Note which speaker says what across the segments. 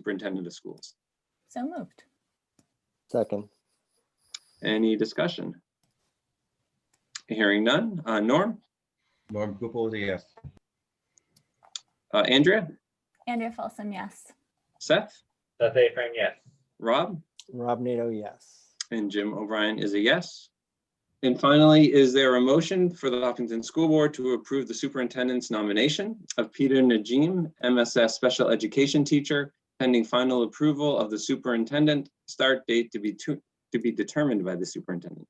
Speaker 1: superintendent of schools.
Speaker 2: So moved.
Speaker 3: Second.
Speaker 1: Any discussion? Hearing none. Uh, Norm,
Speaker 4: Norm Gupel is a yes.
Speaker 1: uh, Andrea,
Speaker 2: Andrea Folsom, yes.
Speaker 1: Seth,
Speaker 5: Seth A. Frame, yes.
Speaker 1: Rob,
Speaker 3: Rob Nato, yes.
Speaker 1: and Jim O'Brien is a yes. And finally, is there a motion for the Hopkinton School Board to approve the superintendent's nomination of Peter Najim, MSS Special Education Teacher, pending final approval of the superintendent, start date to be to, to be determined by the superintendent?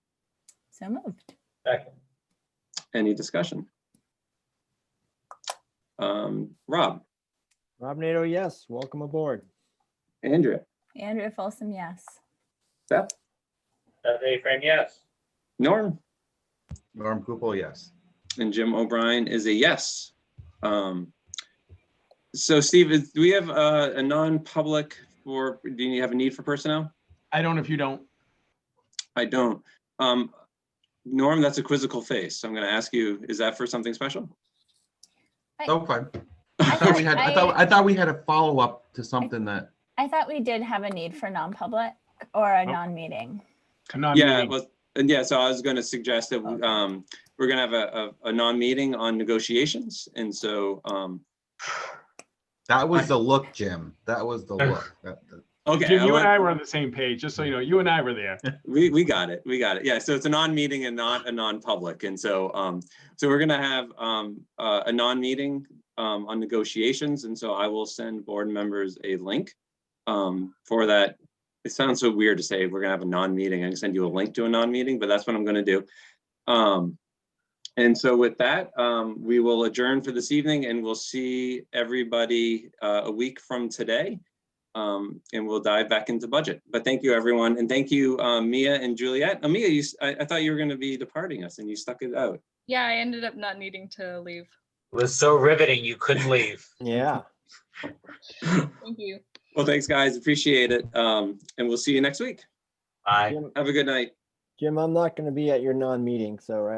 Speaker 2: So moved.
Speaker 5: Second.
Speaker 1: Any discussion? Um, Rob,
Speaker 3: Rob Nato, yes. Welcome aboard.
Speaker 1: Andrea,
Speaker 2: Andrea Folsom, yes.
Speaker 1: Seth,
Speaker 5: Seth A. Frame, yes.
Speaker 1: Norm?
Speaker 4: Norm Gupel, yes.
Speaker 1: And Jim O'Brien is a yes. Um, So Steve, is- do we have uh, a, a non-public for, do you have a need for personnel?
Speaker 6: I don't if you don't.
Speaker 1: I don't. Um, Norm, that's a quizzical face. So I'm going to ask you, is that for something special?
Speaker 4: Oh, fine. I
Speaker 2: I
Speaker 4: thought we had, I thought,
Speaker 2: I-
Speaker 4: I thought we had a follow-up to something that,
Speaker 2: I thought we did have a need for non-public or a
Speaker 4: Oh.
Speaker 2: non-meeting.
Speaker 1: Yeah, well, and yeah, so I was going to suggest that um, we're going to have a, a, a non-meeting on negotiations. And so, um,
Speaker 4: that was the look, Jim. That was the look. That- that-
Speaker 1: okay.
Speaker 6: Jim,
Speaker 1: I
Speaker 6: you
Speaker 1: want-
Speaker 6: and I were on the same page, just so you know, you and I were there.
Speaker 1: We, we got it. We got it. Yeah. So it's a non-meeting and not a non-public. And so, um, so we're gonna have, um, uh, a non-meeting, um, on negotiations. And so I will send board members a link, um, for that. It sounds so weird to say we're gonna have a non-meeting. I can send you a link to a non-meeting, but that's what I'm gonna do. Um, and so with that, um, we will adjourn for this evening and we'll see everybody, uh, a week from today um, and we'll dive back into budget. But thank you, everyone, and thank you, um, Mia and Juliet. Uh, Mia, you, s- I, I thought you were going to be departing us, and you stuck it out.
Speaker 7: Yeah, I ended up not needing to leave.
Speaker 5: Was so riveting, you couldn't leave.
Speaker 3: Yeah.
Speaker 7: Thank you.
Speaker 1: Well, thanks, guys. Appreciate it, um, and we'll see you next week.
Speaker 5: Bye.
Speaker 3: Jim,
Speaker 1: Have a good night.
Speaker 3: Jim, I'm not going to be at your non-meeting, so, right?